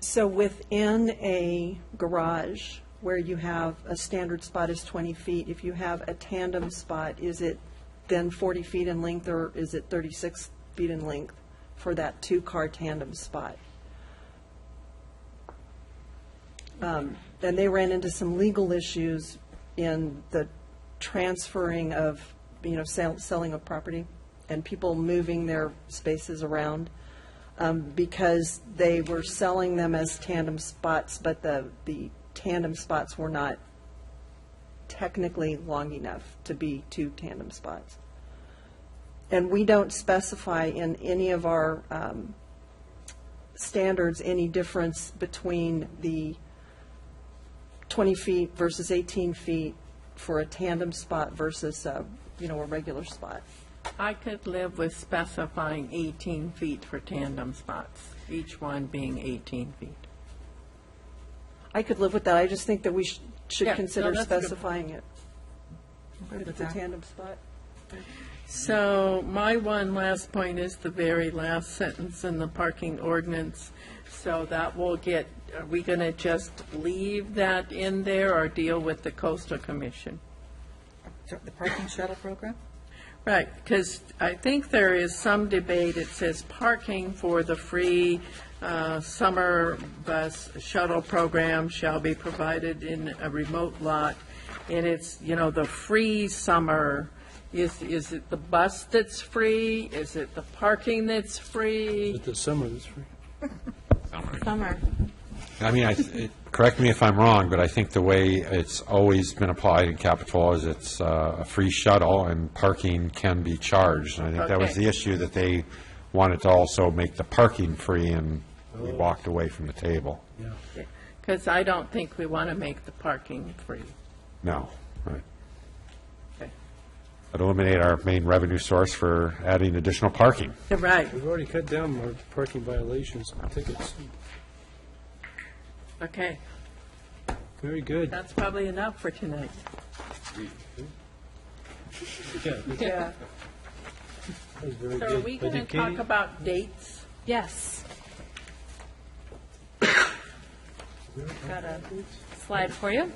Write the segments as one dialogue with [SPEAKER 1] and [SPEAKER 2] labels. [SPEAKER 1] So within a garage where you have a standard spot is 20 feet, if you have a tandem spot, is it then 40 feet in length or is it 36 feet in length for that two-car tandem spot? Then they ran into some legal issues in the transferring of, you know, sell- selling of property and people moving their spaces around um, because they were selling them as tandem spots, but the, the tandem spots were not technically long enough to be two tandem spots. And we don't specify in any of our um, standards any difference between the 20 feet versus 18 feet for a tandem spot versus, uh, you know, a regular spot.
[SPEAKER 2] I could live with specifying 18 feet for tandem spots, each one being 18 feet.
[SPEAKER 1] I could live with that, I just think that we sh-
[SPEAKER 2] Yeah,
[SPEAKER 1] should
[SPEAKER 2] no,
[SPEAKER 1] consider
[SPEAKER 2] that's a good-
[SPEAKER 1] specifying it. If it's a
[SPEAKER 2] that.
[SPEAKER 1] tandem spot.
[SPEAKER 2] So my one last point is the very last sentence in the parking ordinance. So that will get, are we going to just leave that in there or deal with the coastal commission?
[SPEAKER 3] The parking shuttle program?
[SPEAKER 2] Right, because I think there is some debate, it says parking for the free uh, summer bus shuttle program shall be provided in a remote lot, and it's, you know, the free summer, is, is it the bus that's free? Is it the parking that's free?
[SPEAKER 4] But the summer is free.
[SPEAKER 3] Summer.
[SPEAKER 5] I mean, I, it- correct me if I'm wrong, but I think the way it's always been applied in Capitol is it's uh, a free shuttle and parking can be charged. And I think that was
[SPEAKER 2] Okay.
[SPEAKER 5] the issue, that they wanted to also make the parking free and
[SPEAKER 2] Oh.
[SPEAKER 5] we walked away from the table.
[SPEAKER 2] Because I don't think we want to make the parking free.
[SPEAKER 5] No, right.
[SPEAKER 2] Okay.
[SPEAKER 5] But eliminate our main revenue source for adding additional parking.
[SPEAKER 2] Right,
[SPEAKER 4] We've already cut down our parking violations and tickets.
[SPEAKER 2] okay,
[SPEAKER 4] Very good.
[SPEAKER 2] that's probably enough for tonight.
[SPEAKER 4] Yeah, that
[SPEAKER 2] Yeah.
[SPEAKER 4] was very
[SPEAKER 2] So are
[SPEAKER 4] good.
[SPEAKER 2] we going
[SPEAKER 4] But
[SPEAKER 2] to
[SPEAKER 4] did Katie-
[SPEAKER 2] talk about dates?
[SPEAKER 3] Yes. Got a slide for you.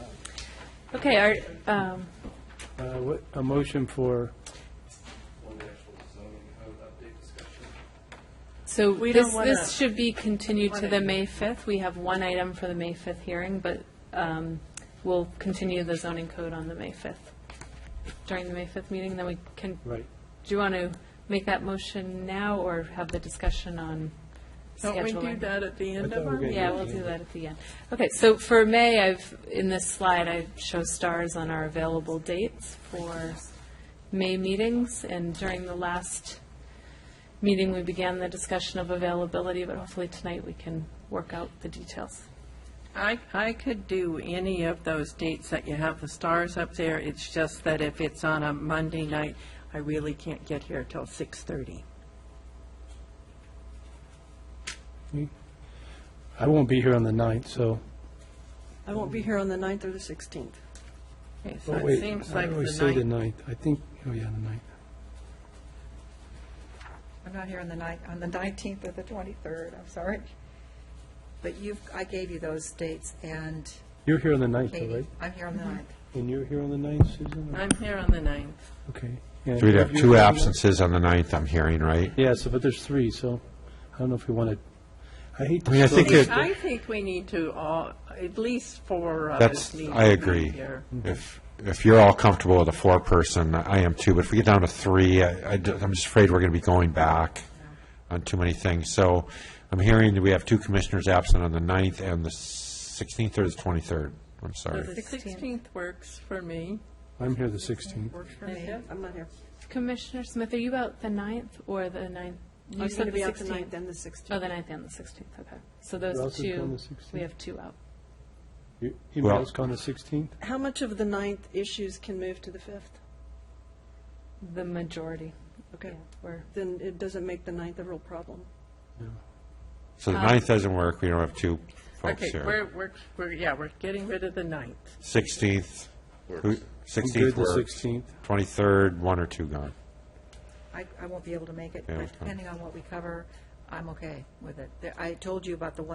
[SPEAKER 3] Okay, our, um,
[SPEAKER 4] Uh, what- A motion for,
[SPEAKER 6] So
[SPEAKER 2] We
[SPEAKER 6] this,
[SPEAKER 2] don't wanna-
[SPEAKER 6] this should be continued to the May 5th. We have one item for the May 5th hearing, but um, we'll continue the zoning code on the May 5th, during the May 5th meeting, then we can, do
[SPEAKER 4] right,
[SPEAKER 6] you want to make that motion now or have the discussion on
[SPEAKER 2] Don't we
[SPEAKER 6] scheduling?
[SPEAKER 2] do that at the end
[SPEAKER 4] thought
[SPEAKER 2] of
[SPEAKER 4] we were
[SPEAKER 2] our
[SPEAKER 4] gonna-
[SPEAKER 6] Yeah, we'll do that at the end. Okay, so for May, I've, in this slide, I show stars on our available dates for May meetings, and during the last meeting, we began the discussion of availability, but hopefully tonight we can work out the details.
[SPEAKER 2] I, I could do any of those dates that you have the stars up there. It's just that if it's on a Monday night, I really can't get here till 6:30.
[SPEAKER 4] I won't be here on the 9th, so.
[SPEAKER 1] I won't be here on the 9th or the 16th.
[SPEAKER 2] Okay,
[SPEAKER 4] Oh,
[SPEAKER 2] so it
[SPEAKER 4] wait,
[SPEAKER 2] seems like
[SPEAKER 4] I
[SPEAKER 2] the
[SPEAKER 4] always say the
[SPEAKER 2] night.
[SPEAKER 4] 9th. I think, oh, yeah, the 9th.
[SPEAKER 3] I'm not here on the night, on the 19th or the 23rd, I'm sorry.
[SPEAKER 7] But you've, I gave you those dates, and
[SPEAKER 4] You're here on the 9th, though,
[SPEAKER 7] Katie,
[SPEAKER 4] right? Mm-hmm.
[SPEAKER 7] I'm here on the ninth.
[SPEAKER 4] And you're here on the 9th, Susan?
[SPEAKER 2] I'm here on the ninth.
[SPEAKER 4] Okay.
[SPEAKER 5] So we'd have two absences on the 9th, I'm hearing, right?
[SPEAKER 4] Yeah, so, but there's three, so I don't know if we want to, I hate to.
[SPEAKER 5] I mean, I
[SPEAKER 4] slow
[SPEAKER 5] think
[SPEAKER 4] this-
[SPEAKER 5] it-
[SPEAKER 2] I think we need to all, at least four of us
[SPEAKER 5] That's,
[SPEAKER 2] need to be
[SPEAKER 5] I agree.
[SPEAKER 2] here.
[SPEAKER 5] Mm-hmm. If, if you're all comfortable with a four-person, I am too, but if we get down to three, I, am just afraid we're going to be going back on too many things. So I'm hearing that we have two commissioners absent on the 9th and the 16th or the 23rd. I'm
[SPEAKER 2] So
[SPEAKER 5] sorry.
[SPEAKER 2] the 16th works for me.
[SPEAKER 4] I'm here the 16th.
[SPEAKER 2] Works for me.
[SPEAKER 1] I'm not here.
[SPEAKER 6] Commissioner Smith, are you out the 9th or the 9th? You
[SPEAKER 1] I'm going
[SPEAKER 6] Oh, said
[SPEAKER 1] to
[SPEAKER 6] the
[SPEAKER 1] be out the
[SPEAKER 6] 16th.
[SPEAKER 1] 9th and the
[SPEAKER 6] Oh,
[SPEAKER 1] 16th.
[SPEAKER 6] the 9th and the 16th, okay. So
[SPEAKER 4] Who
[SPEAKER 6] those
[SPEAKER 4] else is on
[SPEAKER 6] two,
[SPEAKER 4] the 16th?
[SPEAKER 6] we have two out.
[SPEAKER 4] You-
[SPEAKER 5] Well-
[SPEAKER 4] Emails on the 16th?
[SPEAKER 1] How much of the 9th issues can move to the 5th?
[SPEAKER 6] The majority, yeah,
[SPEAKER 1] Okay,
[SPEAKER 6] were
[SPEAKER 1] then it doesn't make the 9th a real problem.
[SPEAKER 5] So the 9th doesn't work, we don't have two folks
[SPEAKER 2] uh, Okay, we're,
[SPEAKER 5] here.
[SPEAKER 2] we're, we're, yeah, we're getting rid of the ninth.
[SPEAKER 5] 16th, who-
[SPEAKER 4] I'm good
[SPEAKER 5] 16th
[SPEAKER 4] the
[SPEAKER 5] works.
[SPEAKER 4] 16th.
[SPEAKER 5] 23rd, one or two gone.
[SPEAKER 7] I, I won't be able to make it,
[SPEAKER 5] Yeah,
[SPEAKER 7] but
[SPEAKER 5] it's fine.
[SPEAKER 7] depending on what we cover, I'm okay with it. There- I told you about the one.